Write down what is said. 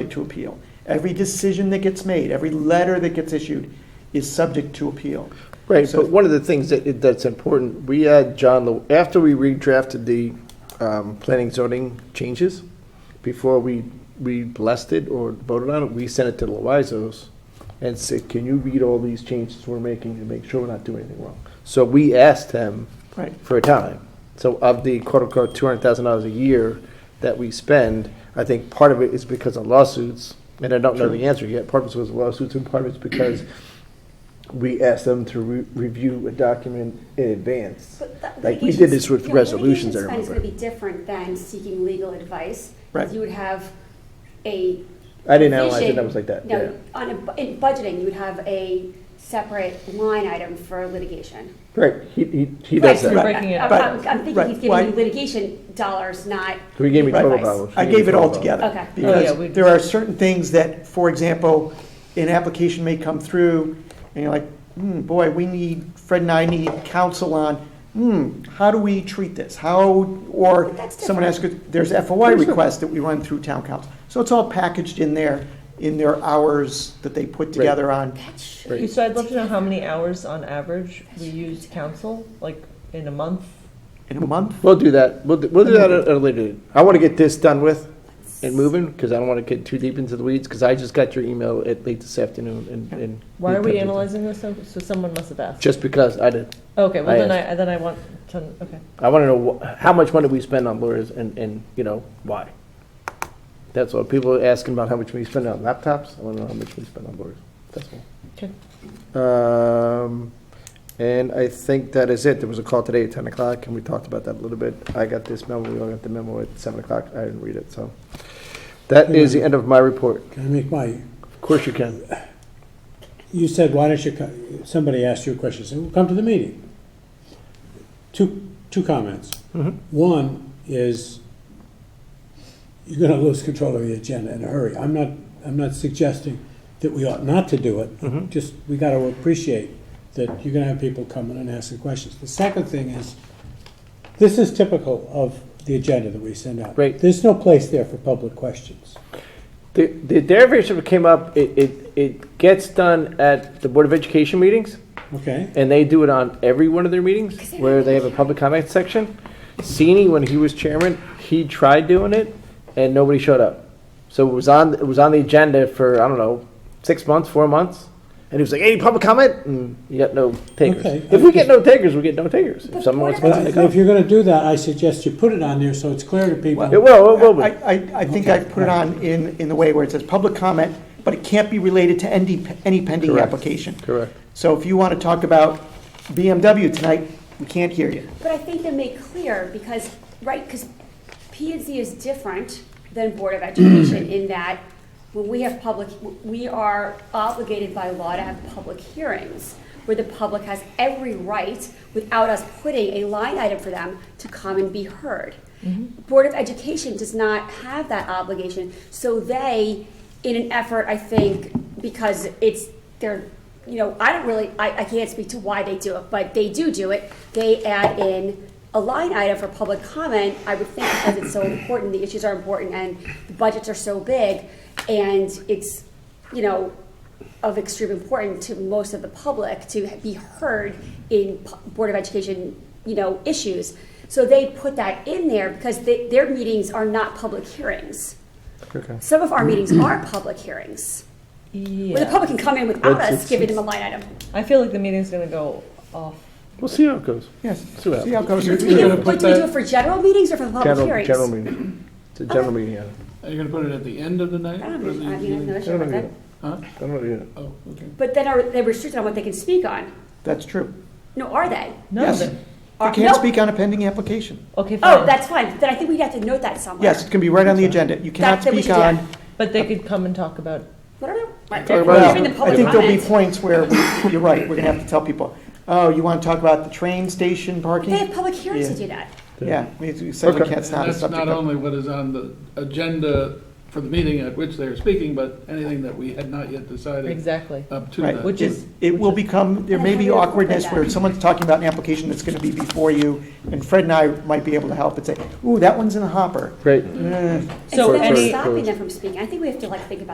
subject to appeal. Every decision that gets made, every letter that gets issued is subject to appeal. Right, So- but one of the things that, that's important, we had John, Lew- after we redrafted the um, planning zoning changes, before we, we blessed it or voted on it, we sent it to the Loizos and said, can you read all these changes we're making and make sure we're not doing anything wrong? So we asked him Right. for a time. So of the quote-unquote $200,000 a year that we spend, I think part of it is because of lawsuits, and I don't know the answer yet, part of it's because of lawsuits, and part of it's because we asked them to re- review a document in advance. But that Like, we litigation- did this with yeah, resolutions, I Litigation spend is remember. going to be different than seeking legal advice. 'cause Right. You would have a. I didn't analyze it, division- I was like that, yeah. No, on, a bu- in budgeting, you would have a separate line item for litigation. Right, he, he, he does Right. Right, that. breaking it I'm- up. I'm, I'm thinking Right, he's giving why- you litigation dollars, not, So he gave me total Right. dollars. I He gave gave me it total all dollars. together. Okay. Oh, yeah, we- Because there are certain things that, for example, an application may come through, and you're like, hmm, boy, we need, Fred and I need counsel on, hmm, how do we treat this? How, or That's someone asks, there's FOI requests that we run through town council. So it's all packaged in there, in their hours that they put together on, that should. Right. So I'd love to know how many hours on average we use council, like in a month? in a month. We'll do that, we'll, do- we'll do that at a later date. I want to get this done with and moving, because I don't want to get too deep into the weeds, because I just got your email at late this afternoon and, and. Why are we analyzing this? So so someone must have asked. Just because I did, Okay, well I then I, then I want to, okay. I want to know wh- how much money we spend on lawyers and, and, you know, why. That's what people are asking about how much we spend on laptops. I want to know how much we spend on lawyers. That's Okay. all. Um, and I think that is it. There was a call today at ten o'clock and we talked about that a little bit. I got this memo, we all got the memo at seven o'clock. I didn't read it, so. That is the end of my report. Can I make my, Of course you can. you said, why don't you, co- somebody asked you a question, said, well, come to the meeting. Two, two comments. One is, you're gonna lose control of the agenda in a hurry. I'm not, I'm not suggesting that we ought not to do it, just, we gotta appreciate that you're gonna have people coming and asking questions. The second thing is, this is typical of the agenda that we send out. Right. There's no place there for public questions. The, the derivation that came up, it, it, it gets done at the Board of Education meetings. Okay? and they do it on every one of their meetings where they have a public comment section. Sini, when he was chairman, he tried doing it and nobody showed up. So it was on it was on the agenda for I don't know six months, four months, and he was like, "Any public comment?" And you got no takers. Okay. If we get no takers, we get no takers. If someone wants to Well, comment, they if come. you're gonna do that, I suggest you put it on there so it's clear to people. It will, it will be. I, I, I think I put it on in, in the way where it says public comment, but it can't be related to any, any pending Correct. application. Correct. So if you want to talk about BMW tonight, we can't hear you. But I think they make clear because, right, because P and Z is different than Board of Education in that when we have public, we are obligated by law to have public hearings where the public has every right, without us putting a line item for them, to come and be heard. Board of Education does not have that obligation, so they, in an effort, I think, because it's, they're you know, I don't really, I, I can't speak to why they do it, but they do do it. They add in a line item for public comment, I would think because it's so important, the issues are important, and the budgets are so big, and it's, you know, of extreme importance to most of the public to be heard in pu- Board of Education, you know, issues. So they put that in there because they, their meetings are not public hearings. Okay. Some of our meetings are public hearings, where the Yeah, public can come in without It's- us it's- giving them a line item. I feel like the meeting's gonna go off. We'll see how it goes. Yes, See what see how it goes. Do we do, gonna what put do we do that- it for general meetings or for the public General hearings? general meeting. It's a general meeting. Yeah. Are you gonna put it at the end of the night? I don't or the know, I mean, I have no beginning? issue with that. Huh? I don't know. Oh, okay. But then are they restricted on what they can speak on? That's true. No, are they? No, Yes, the- you Are- can't no. speak on a pending application. okay, Oh, fine, that's fine, then I think we'd have to note that somewhere. Yes, it can be right on the agenda. You cannot That- that we speak should do. on. but they could come and talk about, Whatever, right, Talk about we're Well, giving the I public think there'll be comment. points where, we- you're right, we're going to have to tell people, oh, you want to talk about the train station They have parking? public hearings to Yeah. do that. Yeah, we we said we Okay. can't, it's And not a that's subject. not of- only what is on the agenda for the meeting at which they are speaking, but anything that we had not yet decided exactly. up to Right. that. Which is, It will become, there may be And how do you awkwardness incorporate where that? someone's talking about an application that's gonna be before you, and Fred and I might be able to help and say, ooh, that one's in the hopper. Great. Eh. And so So then we're any- stopping them from speaking. I think we have to like think about